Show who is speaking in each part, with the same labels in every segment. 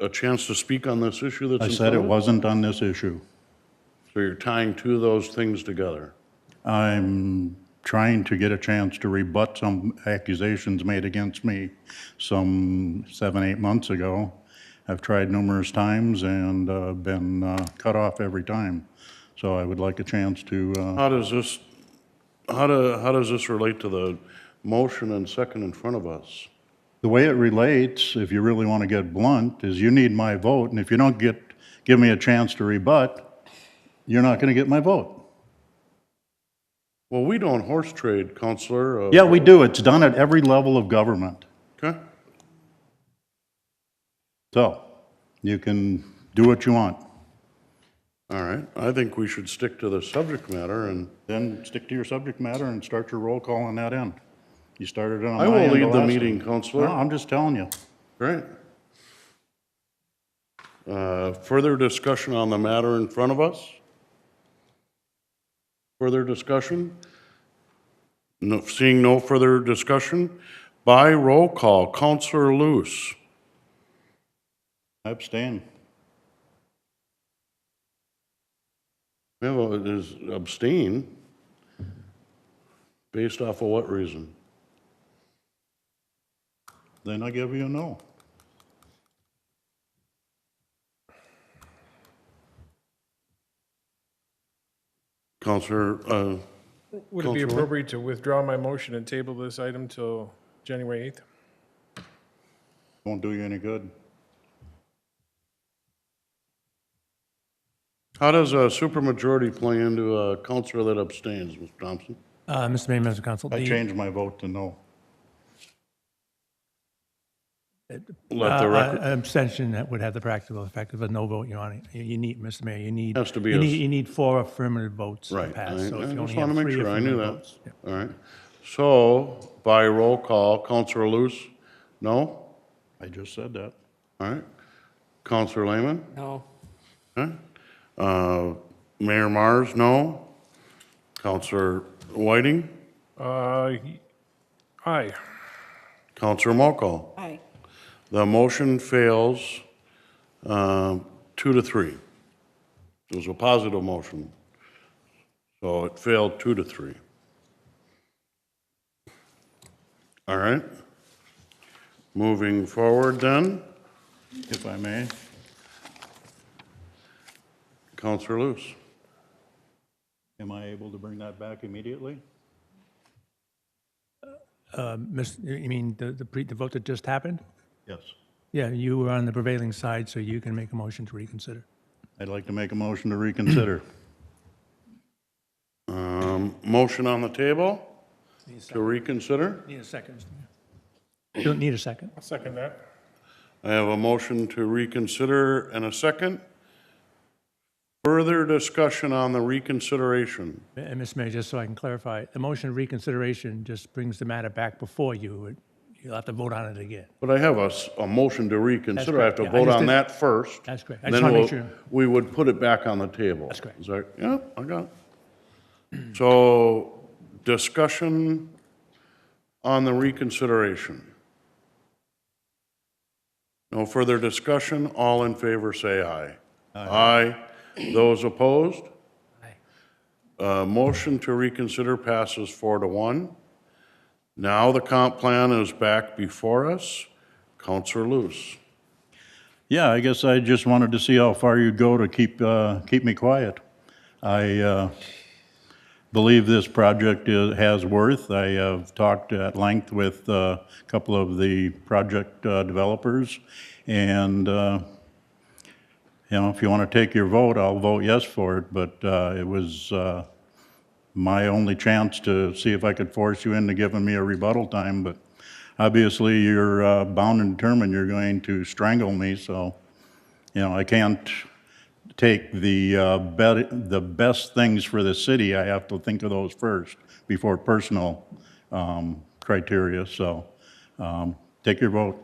Speaker 1: a chance to speak on this issue that's
Speaker 2: I
Speaker 1: in
Speaker 2: said it
Speaker 1: front of us?
Speaker 2: wasn't on this issue.
Speaker 1: So you're tying two of those things together.
Speaker 2: I'm trying to get a chance to rebut some accusations made against me some seven, eight months ago. I've tried numerous times and uh, been uh, cut off every time. So I would like a chance to, uh,
Speaker 1: How does this, how do, how does this relate to the motion and second in front of us?
Speaker 2: the way it relates, if you really want to get blunt, is you need my vote, and if you don't get, give me a chance to rebut, you're not going to get my vote.
Speaker 1: Well, we don't horse trade, Counselor. uh,
Speaker 2: Yeah, we do. It's done at every level of government.
Speaker 1: Okay,
Speaker 2: So you can do what you want.
Speaker 1: all right. I think we should stick to the subject matter and
Speaker 2: Then stick to your subject matter and start your roll call on that end. You started it on
Speaker 1: I
Speaker 2: my
Speaker 1: will
Speaker 2: end
Speaker 1: lead the
Speaker 2: last
Speaker 1: meeting,
Speaker 2: time. No,
Speaker 1: Counselor.
Speaker 2: I'm just telling you.
Speaker 1: Great. Uh, Further discussion on the matter in front of us? Further discussion? No, seeing no further discussion, by roll call, Counselor Loose.
Speaker 2: I abstain.
Speaker 1: Yeah, well, it is abstain. Based off of what reason?
Speaker 2: Then I give you a no.
Speaker 1: Counselor, uh,
Speaker 3: Would it be
Speaker 1: Counselor?
Speaker 3: appropriate to withdraw my motion and table this item till January 8th?
Speaker 2: Won't do you any good.
Speaker 1: how does a supermajority play into a counselor that abstains, Mr. Thompson?
Speaker 4: Uh, Mr. Mayor, members of council,
Speaker 2: I
Speaker 4: the-
Speaker 2: changed my vote to no.
Speaker 1: Let
Speaker 4: uh,
Speaker 1: the
Speaker 4: uh,
Speaker 1: record,
Speaker 4: Abstention that would have the practical effect of a no vote, Your Honor. You- You need, Mr. Mayor, you need.
Speaker 1: Has to be
Speaker 4: You
Speaker 1: a-
Speaker 4: need, you need four affirmative votes to
Speaker 1: right. I I
Speaker 4: pass.
Speaker 1: just
Speaker 4: So if you
Speaker 1: want
Speaker 4: only
Speaker 1: to
Speaker 4: have
Speaker 1: make
Speaker 4: three
Speaker 1: sure, I knew
Speaker 4: affirmative
Speaker 1: that.
Speaker 4: votes.
Speaker 1: All right. So by roll call, Counselor Loose, no?
Speaker 2: I just said that.
Speaker 1: All right. Counselor Lehman?
Speaker 3: No.
Speaker 1: Okay. Uh, Mayor Mars, no? Counselor Whiting?
Speaker 3: Uh, Aye.
Speaker 1: Counselor Mokel?
Speaker 5: Aye.
Speaker 1: The motion fails um, two to three. It was a positive motion, so it failed two to three. All right. Moving forward then,
Speaker 2: If I may,
Speaker 1: Counselor Loose.
Speaker 2: am I able to bring that back immediately?
Speaker 4: Uh, Miss, you you mean the, the pre, the vote that just happened?
Speaker 2: Yes.
Speaker 4: Yeah, you were on the prevailing side, so you can make a motion to reconsider.
Speaker 2: I'd like to make a motion to reconsider.
Speaker 1: Um, Motion on the table to reconsider.
Speaker 4: Need a second, Mr. Mayor. You don't need a second.
Speaker 3: I'll second that.
Speaker 1: I have a motion to reconsider and a second. Further discussion on the reconsideration.
Speaker 4: And Mr. Uh, Mayor, just so I can clarify, the motion of reconsideration just brings the matter back before you. It- You'll have to vote on it again.
Speaker 1: But I have a, s- a motion to reconsider. I have
Speaker 4: correct.
Speaker 1: to
Speaker 4: Yeah, I
Speaker 1: vote
Speaker 4: just
Speaker 1: on
Speaker 4: did-
Speaker 1: that first.
Speaker 4: That's correct. I
Speaker 1: and
Speaker 4: just
Speaker 1: Then
Speaker 4: wanna make
Speaker 1: we'll-
Speaker 4: sure.
Speaker 1: We would put it back on the table. That's
Speaker 4: correct.
Speaker 1: Is that, yeah, I got it. So discussion on the reconsideration. No further discussion. All in favor, say aye. Aye. Those opposed? Uh, motion to reconsider passes four to one. Now the comp plan is back before us. Counselor Loose.
Speaker 2: Yeah, I guess I just wanted to see how far you'd go to keep, uh, keep me quiet. I uh, believe this project i- has worth. I have talked at length with uh, a couple of the project uh, developers, and, uh, you know, if you want to take your vote, I'll vote yes for it, but uh, it was uh, my only chance to see if I could force you into giving me a rebuttal time, but obviously, you're uh, bound and determined you're going to strangle me, so, you know, I can't take the, uh, bet- the best things for the city, I have to think of those first before personal um, criteria, so um, take your vote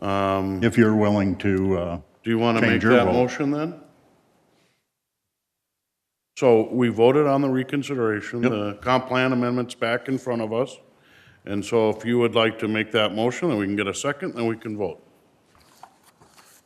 Speaker 1: Um,
Speaker 2: if you're willing to, uh,
Speaker 1: Do you want to make
Speaker 2: Change your
Speaker 1: that
Speaker 2: vote.
Speaker 1: motion then? So we voted on the reconsideration, the comp plan amendment's back in front of us. And so if you would like to make that motion, then we can get a second, then we can vote.